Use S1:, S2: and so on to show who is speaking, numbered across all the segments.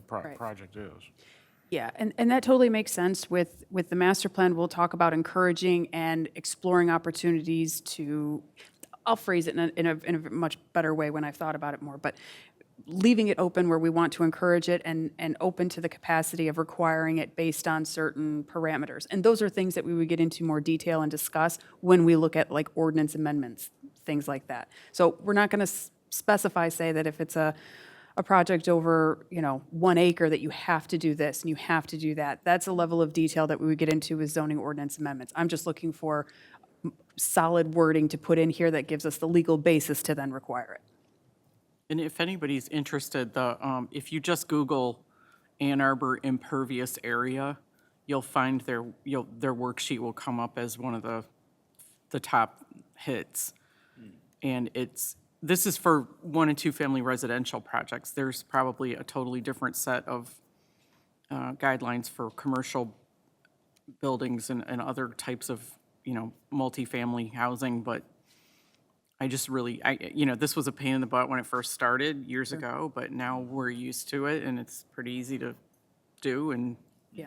S1: pro-
S2: Right.
S1: project is.
S2: Yeah, and, and that totally makes sense with, with the master plan, we'll talk about encouraging and exploring opportunities to, I'll phrase it in a, in a, in a much better way when I've thought about it more, but leaving it open where we want to encourage it and, and open to the capacity of requiring it based on certain parameters. And those are things that we would get into more detail and discuss when we look at like ordinance amendments, things like that. So we're not gonna s- specify, say that if it's a, a project over, you know, one acre that you have to do this and you have to do that. That's a level of detail that we would get into with zoning ordinance amendments. I'm just looking for m- solid wording to put in here that gives us the legal basis to then require it.
S3: And if anybody's interested, the, um, if you just Google Ann Arbor impervious area, you'll find their, you'll, their worksheet will come up as one of the, the top hits. And it's, this is for one and two-family residential projects. There's probably a totally different set of uh, guidelines for commercial buildings and, and other types of, you know, multifamily housing, but I just really, I, you know, this was a pain in the butt when it first started years ago, but now we're used to it and it's pretty easy to do and
S2: Yeah.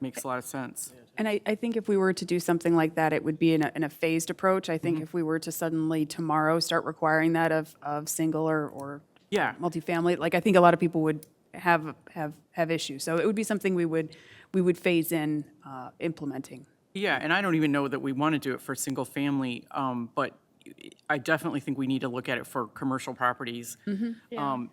S3: makes a lot of sense.
S2: And I, I think if we were to do something like that, it would be in a, in a phased approach. I think if we were to suddenly tomorrow start requiring that of, of single or, or
S3: Yeah,
S2: multifamily, like I think a lot of people would have, have, have issues. So it would be something we would, we would phase in uh, implementing.
S3: yeah, and I don't even know that we want to do it for single family, um, but I definitely think we need to look at it for commercial properties.
S2: Mm-hmm.
S3: Um,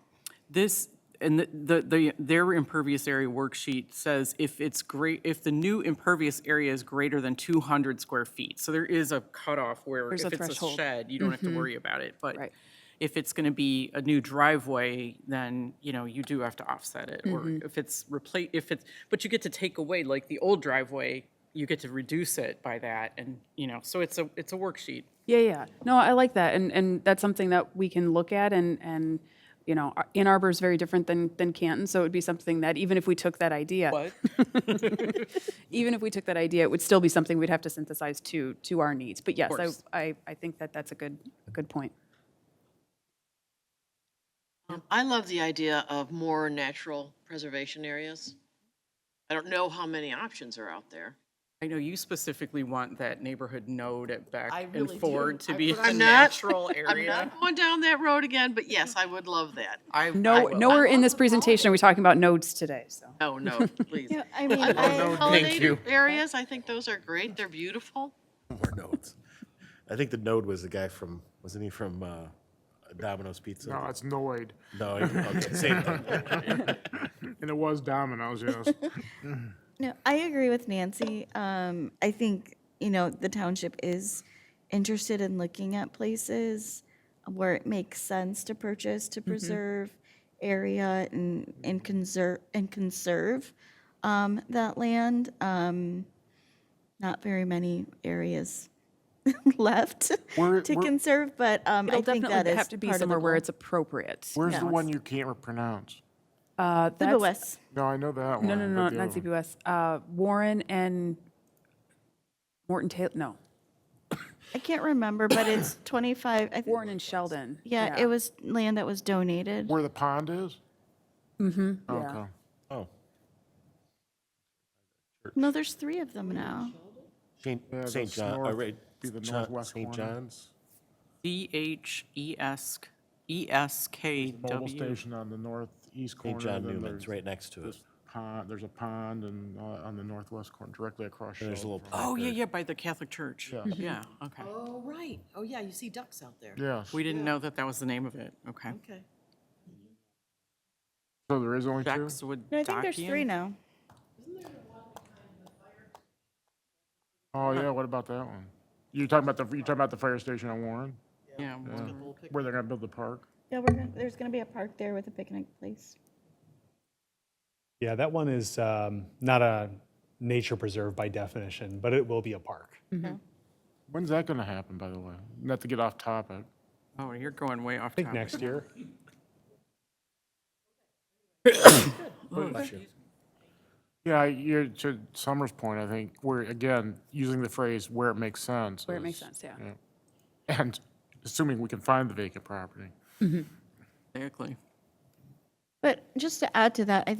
S3: This, and the- the, the, their impervious area worksheet says if it's great, if the new impervious area is greater than two hundred square feet, so there is a cutoff where
S2: There's
S3: if
S2: a
S3: it's a
S2: threshold.
S3: shed, you don't have to worry about it, but
S2: Right.
S3: if it's gonna be a new driveway, then, you know, you do have to offset it, or if it's replace, if it's, but you get to take away, like, the old driveway, you get to reduce it by that, and, you know, so it's a, it's a worksheet.
S2: Yeah, yeah. No, I like that, and, and that's something that we can look at, and, and, you know, Ar- Ann Arbor is very different than, than Canton, so it would be something that, even if we took that idea.
S3: What?
S2: Even if we took that idea, it would still be something we'd have to synthesize to, to our needs. But yes,
S3: course.
S2: I, I, I think that that's a good, a good point.
S4: Um, I love the idea of more natural preservation areas. I don't know how many options are out there.
S3: I know you specifically want that neighborhood node at Beck
S5: I
S3: and
S5: really do.
S3: Ford to
S5: I-
S3: be
S5: but
S3: a
S5: I'm
S4: not-
S3: natural
S4: I'm
S3: area.
S4: not going down that road again, but yes, I would love that.
S3: I- I
S2: No,
S3: will.
S2: nowhere in this presentation are we talking about nodes today, so.
S4: No, no, please.
S5: Yeah, I mean,
S4: I
S5: I,
S4: love
S6: thank you.
S4: pollinated Areas, I think those are great. They're beautiful.
S6: More nodes. I think the node was the guy from, wasn't he from uh, Domino's Pizza?
S1: No, it's Noid,
S6: No, he- okay, same thing.
S1: and it was Domino's, yes.
S5: no, I agree with Nancy. Um, I think, you know, the township is interested in looking at places where it makes sense to purchase, to preserve area and, and conserve, and conserve, um, that land. Um, not very many areas left
S1: Where-
S5: to
S1: where-
S5: conserve, but, um, I
S2: It'll
S5: think that
S2: definitely
S5: is
S2: have to be
S5: part of the
S2: somewhere where
S5: goal.
S2: it's appropriate.
S1: Where's the one you can't pronounce?
S2: Uh, that's-
S5: Lewis.
S1: No, I know that one.
S2: No, no,
S1: but
S2: no, no,
S1: the
S2: not
S1: other one.
S2: CPUS. Uh, Warren and Morton Taylor, no,
S5: I can't remember, but it's 25, I think,
S2: Warren and Sheldon.
S5: yeah, it was land that was donated.
S1: Where the pond is? Mm-hmm. Okay.
S6: Oh,
S5: No, there's three of them now.
S6: Saint,
S1: that's
S6: Saint John,
S1: north-
S6: all right.
S1: be the
S6: John-
S1: northwest
S6: Saint
S1: corner.
S6: John's?
S3: E D-H-E-S, E
S1: Mobile
S3: E-S-K-W.
S1: station on the northeast corner.
S6: Saint John
S1: then
S6: Newman's,
S1: there's
S6: right next to it.
S1: this Pond, there's a pond and, uh, on the northwest corner, directly across.
S6: There's a
S1: Shell
S6: little
S1: from-
S3: Oh, yeah, yeah, by the Catholic Church. Yeah, okay.
S7: Oh, right. Oh, yeah, you see ducks out there.
S1: Yes,
S3: We didn't know that that was the name of it. Okay.
S7: Okay.
S1: so there is only two?
S3: Ducks would.
S5: No, I think there's three
S3: Dacian?
S5: now.
S1: Oh, yeah, what about that one? You're talking about the, you're talking about the fire station on Warren,
S3: Yeah. well,
S1: where they're gonna build the park?
S5: Yeah, we're, gonna- there's going to be a park there with a picnic place.
S8: Yeah, that one is um, not a nature preserve by definition, but it will be a park.
S1: When's that gonna happen, by the way? Not to get off topic.
S3: Oh, you're going way off
S8: I think
S3: topic.
S8: next year.
S1: Yeah, you're, to Summer's point, I think, we're, again, using the phrase where it makes sense.
S2: Where it makes
S1: is-
S2: sense, yeah.
S1: And assuming we can find the vacant property.
S3: Exactly.
S5: But just to add to that, I